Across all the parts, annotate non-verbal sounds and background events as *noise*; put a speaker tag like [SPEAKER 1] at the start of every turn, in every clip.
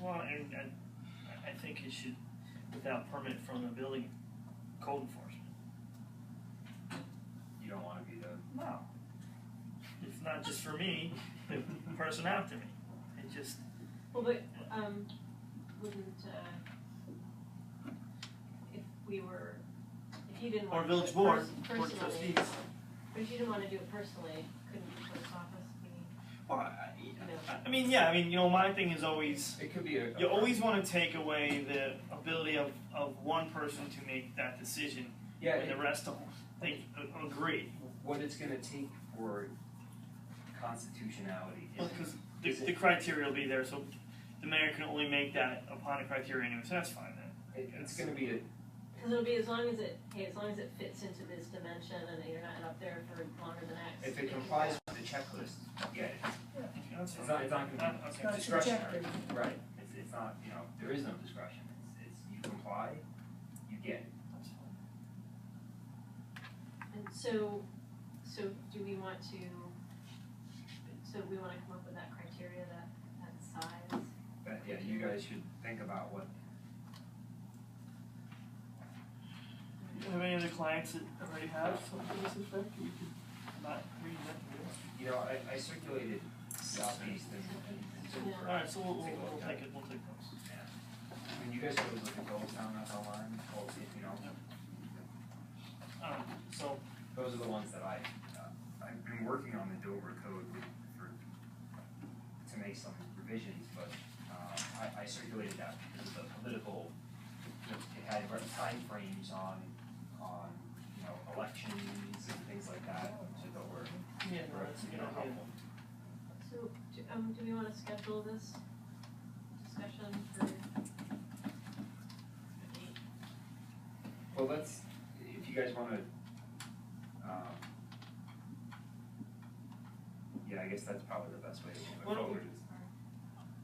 [SPEAKER 1] Well, and I, I think it should, without permit from the building code enforcement.
[SPEAKER 2] You don't wanna be the,
[SPEAKER 1] No. It's not just for me, the person after me. It just,
[SPEAKER 3] Well, but, um, wouldn't, uh, if we were, if you didn't
[SPEAKER 1] or
[SPEAKER 3] want to do
[SPEAKER 1] village
[SPEAKER 3] it
[SPEAKER 1] board,
[SPEAKER 3] pers-
[SPEAKER 1] board
[SPEAKER 3] personally.
[SPEAKER 1] of trustees.
[SPEAKER 3] But if you didn't wanna do it personally, couldn't you post office, we,
[SPEAKER 1] Well, I,
[SPEAKER 3] you know,
[SPEAKER 1] I mean, yeah, I mean, you know, my thing is always,
[SPEAKER 2] it could be a.
[SPEAKER 1] you always wanna take away the ability of, of one person to make that decision
[SPEAKER 2] Yeah,
[SPEAKER 1] and
[SPEAKER 2] it-
[SPEAKER 1] the rest of them, they a- agree.
[SPEAKER 2] what it's gonna take for constitutionality
[SPEAKER 1] Well,
[SPEAKER 2] is.
[SPEAKER 1] cause the, the criteria will be there, so the mayor can only make that upon a criteria anyway, so that's fine then.
[SPEAKER 2] It, it's gonna be a,
[SPEAKER 3] cause it'll be as long as it, hey, as long as it fits into this dimension and that you're not up there for longer than X.
[SPEAKER 2] if it complies with the checklist, yeah, it's,
[SPEAKER 1] Okay, that's fine.
[SPEAKER 2] it's not, it's not gonna
[SPEAKER 1] Uh,
[SPEAKER 2] be
[SPEAKER 1] okay.
[SPEAKER 2] discretionary, right, it's, it's not, you know, there is no discretion, it's, it's, you comply, you get it.
[SPEAKER 1] That's fine.
[SPEAKER 3] And so, so do we want to, so we wanna come up with that criteria, that, that size?
[SPEAKER 2] But yeah, you guys should think about what,
[SPEAKER 1] Do you have any other clients that already have something to this effect? We could not read that.
[SPEAKER 2] you know, I, I circulated Southeast and, and, and so
[SPEAKER 3] Yeah.
[SPEAKER 2] for-
[SPEAKER 1] Alright, so we'll, we'll,
[SPEAKER 2] Take a look
[SPEAKER 1] we'll
[SPEAKER 2] at it.
[SPEAKER 1] take it, we'll take those.
[SPEAKER 2] When you guys go to look at those down at the line, well, you know,
[SPEAKER 1] Um, so,
[SPEAKER 2] those are the ones that I, uh, I've been working on the Dover code for, to make some revisions, but, uh, I, I circulated that because the political, it had timeframes on, on, you know, elections and things like that, so that were,
[SPEAKER 1] yeah, no,
[SPEAKER 2] were,
[SPEAKER 1] that's a
[SPEAKER 2] you
[SPEAKER 1] good
[SPEAKER 2] know,
[SPEAKER 1] idea.
[SPEAKER 2] helpful.
[SPEAKER 3] So, do, um, do we wanna schedule this discussion for?
[SPEAKER 2] Well, let's, if you guys wanna, um, yeah, I guess that's probably the best way to
[SPEAKER 1] Why
[SPEAKER 2] move it
[SPEAKER 1] don't we-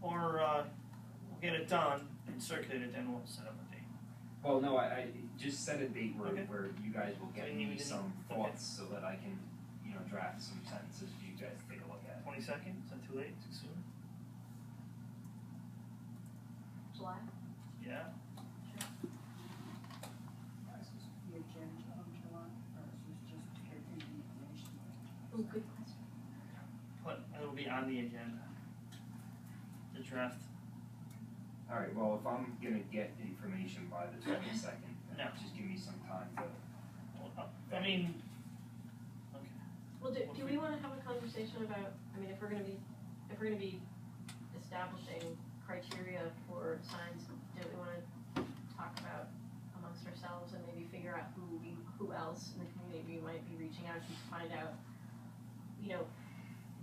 [SPEAKER 2] forward is-
[SPEAKER 1] Or, uh, we'll get it done and circulate it, then we'll set up a date.
[SPEAKER 2] Well, no, I, I just set a date where,
[SPEAKER 1] Okay.
[SPEAKER 2] where you guys will
[SPEAKER 1] So
[SPEAKER 2] get
[SPEAKER 1] you
[SPEAKER 2] me
[SPEAKER 1] need-
[SPEAKER 2] some
[SPEAKER 1] okay.
[SPEAKER 2] thoughts so that I can, you know, draft some sentences for you guys to take a look at.
[SPEAKER 1] Twenty-second, is that too late, too soon?
[SPEAKER 3] July?
[SPEAKER 1] Yeah,
[SPEAKER 4] the agenda on July first, is just to get the information.
[SPEAKER 3] Oh, good question.
[SPEAKER 1] but it'll be on the agenda. The draft,
[SPEAKER 2] Alright, well, if I'm gonna get information by the twenty second,
[SPEAKER 1] No.
[SPEAKER 2] just give me some time to.
[SPEAKER 1] well, uh, I mean, okay,
[SPEAKER 3] Well, do,
[SPEAKER 1] What if
[SPEAKER 3] do we wanna have a conversation about, I mean, if we're gonna be, if we're gonna be establishing criteria for signs, don't we wanna talk about amongst ourselves and maybe figure out who we, who else in the community we might be reaching out to to find out, you know,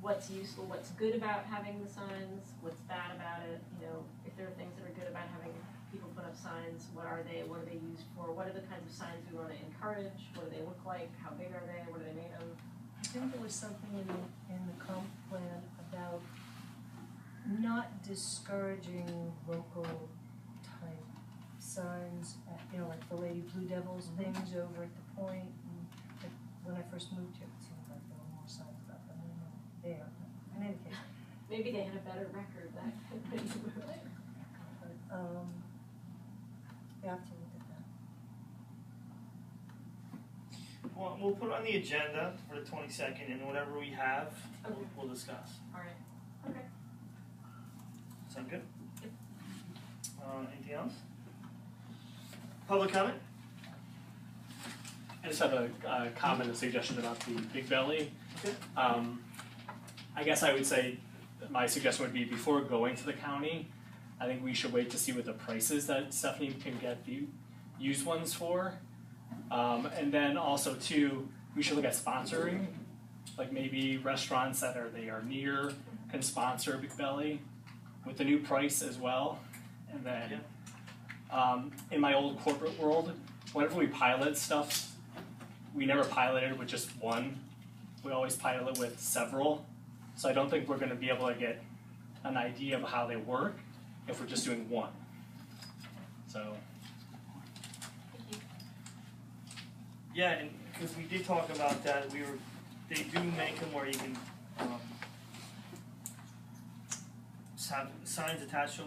[SPEAKER 3] what's useful, what's good about having the signs, what's bad about it, you know, if there are things that are good about having people put up signs, what are they, what are they used for, what are the kinds of signs we wanna encourage, what do they look like, how big are they, what are they made of?
[SPEAKER 5] I think there was something in the, in the comp plan about not discouraging local type signs, uh, you know, like the Lady Blue Devils things over at the point. and, like, When I first moved here, it seemed like there were more signs about them than there were there, in any case.
[SPEAKER 3] Maybe they had a better record back when you were there.
[SPEAKER 5] But, um, you have to look at that.
[SPEAKER 1] well, we'll put it on the agenda for the twenty-second, and whatever we have, we'll,
[SPEAKER 3] *laughs* Okay.
[SPEAKER 1] we'll discuss.
[SPEAKER 3] Alright, okay.
[SPEAKER 1] Sound good?
[SPEAKER 3] Yep.
[SPEAKER 1] Uh, anything else? Public comment?
[SPEAKER 6] I just have a, a comment and suggestion about the Big Belly.
[SPEAKER 1] Okay.
[SPEAKER 6] Um, I guess I would say my suggestion would be before going to the county, I think we should wait to see what the prices that Stephanie can get the used ones for. Um, and then also too, we should look at sponsoring, like maybe restaurants that are they are near can sponsor Big Belly with the new price as well. And then, um, in my old corporate world, whenever we pilot stuff, we never piloted with just one. We always pilot with several. So I don't think we're going to be able to get an idea of how they work if we're just doing one. So
[SPEAKER 3] Thank you.
[SPEAKER 1] Yeah, and because we did talk about that, we were, they do make them where you can, um, s- have signs attached to 'em